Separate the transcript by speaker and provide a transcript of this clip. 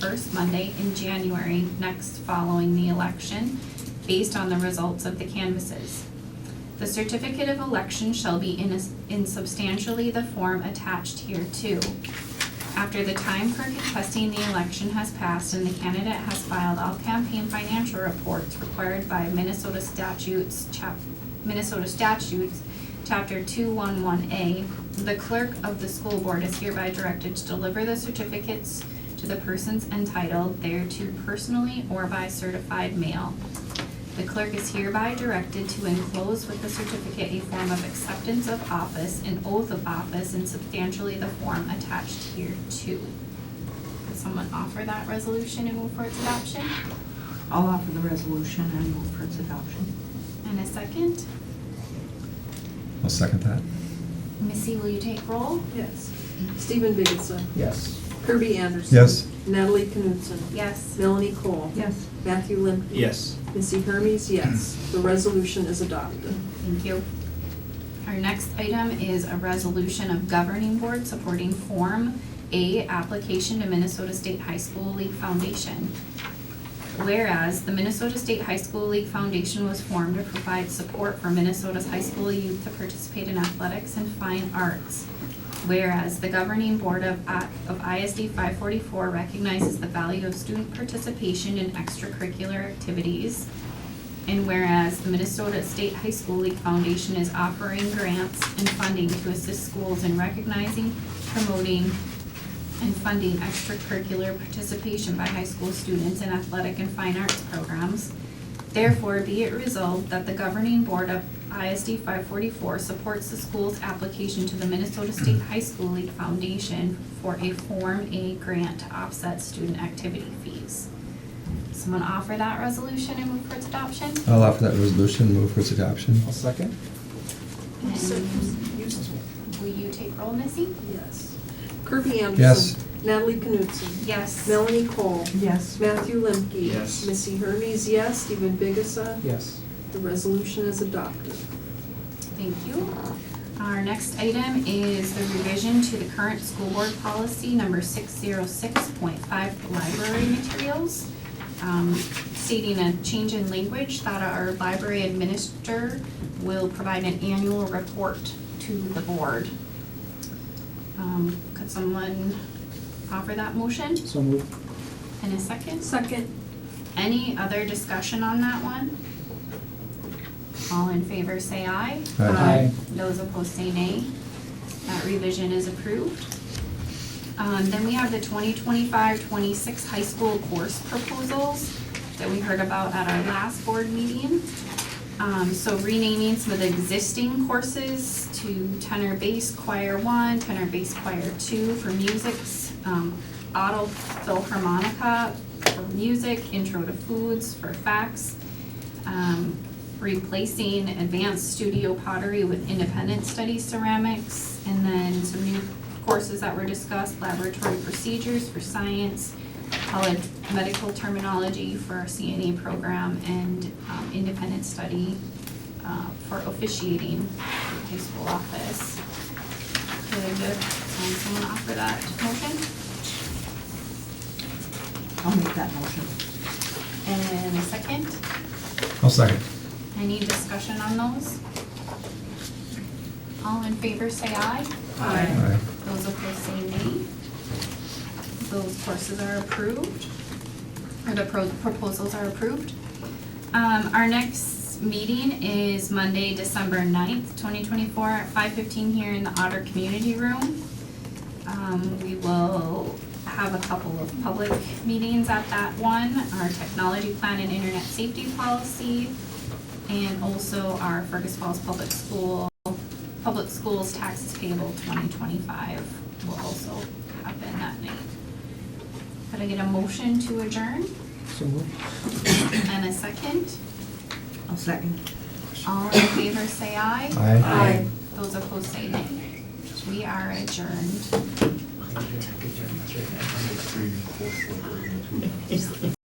Speaker 1: first Monday in January next following the election, based on the results of the canvasses. The certificate of election shall be in is- in substantially the form attached hereto. After the time for contesting the election has passed and the candidate has filed all campaign financial reports required by Minnesota statutes, chap, Minnesota statutes, chapter two one one A, the clerk of the school board is hereby directed to deliver the certificates to the persons entitled thereto personally or by certified mail. The clerk is hereby directed to enclose with the certificate a form of acceptance of office and oath of office in substantially the form attached here too. Does someone offer that resolution and move for its adoption?
Speaker 2: I'll offer the resolution and move for its adoption.
Speaker 1: And a second?
Speaker 3: I'll second that.
Speaker 1: Missy, will you take roll?
Speaker 4: Yes. Stephen Biggessa.
Speaker 5: Yes.
Speaker 4: Kirby Anderson.
Speaker 3: Yes.
Speaker 4: Natalie Knutson.
Speaker 1: Yes.
Speaker 4: Melanie Cole.
Speaker 2: Yes.
Speaker 4: Matthew Limkey.
Speaker 5: Yes.
Speaker 4: Missy Hermes, yes. The resolution is adopted.
Speaker 1: Thank you. Our next item is a resolution of governing board supporting Form A application to Minnesota State High School League Foundation. Whereas the Minnesota State High School League Foundation was formed to provide support for Minnesota's high school youth to participate in athletics and fine arts. Whereas the governing board of, I- of ISD five forty-four recognizes the value of student participation in extracurricular activities. And whereas the Minnesota State High School League Foundation is offering grants and funding to assist schools in recognizing, promoting, and funding extracurricular participation by high school students in athletic and fine arts programs. Therefore, be it resolved that the governing board of ISD five forty-four supports the school's application to the Minnesota State High School League Foundation for a Form A grant to offset student activity fees. Someone offer that resolution and move for its adoption?
Speaker 3: I'll offer that resolution and move for its adoption.
Speaker 5: I'll second.
Speaker 1: And Will you take roll, Missy?
Speaker 4: Yes. Kirby Anderson.
Speaker 3: Yes.
Speaker 4: Natalie Knutson.
Speaker 1: Yes.
Speaker 4: Melanie Cole.
Speaker 2: Yes.
Speaker 4: Matthew Limkey.
Speaker 5: Yes.
Speaker 4: Missy Hermes, yes. Stephen Biggessa.
Speaker 5: Yes.
Speaker 4: The resolution is adopted.
Speaker 1: Thank you. Our next item is the revision to the current school board policy number six zero six point five, library materials. um, Stating a change in language that our library administrator will provide an annual report to the board. Um, Could someone offer that motion
Speaker 5: So move.
Speaker 1: in a second?
Speaker 4: Second.
Speaker 1: Any other discussion on that one? All in favor, say aye.
Speaker 3: Aye.
Speaker 1: Those opposed, say nay. That revision is approved. Um, then we have the 2025-26 high school course proposals that we heard about at our last board meeting. Um, so renaming some of the existing courses to tenor bass choir one, tenor bass choir two for music, um, auto philharmonica for music, intro to foods for facts. Um, replacing advanced studio pottery with independent study ceramics, and then some new courses that were discussed, laboratory procedures for science, college medical terminology for our CNA program, and um, independent study uh, for officiating for high school office. Could um, someone offer that motion?
Speaker 2: I'll make that motion.
Speaker 1: And a second?
Speaker 3: I'll second.
Speaker 1: Any discussion on those? All in favor, say aye.
Speaker 3: Aye.
Speaker 1: Those opposed, say nay. Those courses are approved, or the pro- proposals are approved. Um, our next meeting is Monday, December ninth, twenty twenty-four, at five fifteen here in the Otter Community Room. Um, we will have a couple of public meetings at that one, our technology plan and internet safety policy, and also our Fergus Falls Public School, Public Schools Taxes Payable twenty twenty-five will also happen that night. Could I get a motion to adjourn
Speaker 5: So move.
Speaker 1: and a second?
Speaker 2: I'll second.
Speaker 1: All in favor, say aye.
Speaker 3: Aye.
Speaker 4: Aye.
Speaker 1: Those opposed, say nay. We are adjourned.
Speaker 6: Good job. That's right. I'm gonna scream and force like we're gonna do that.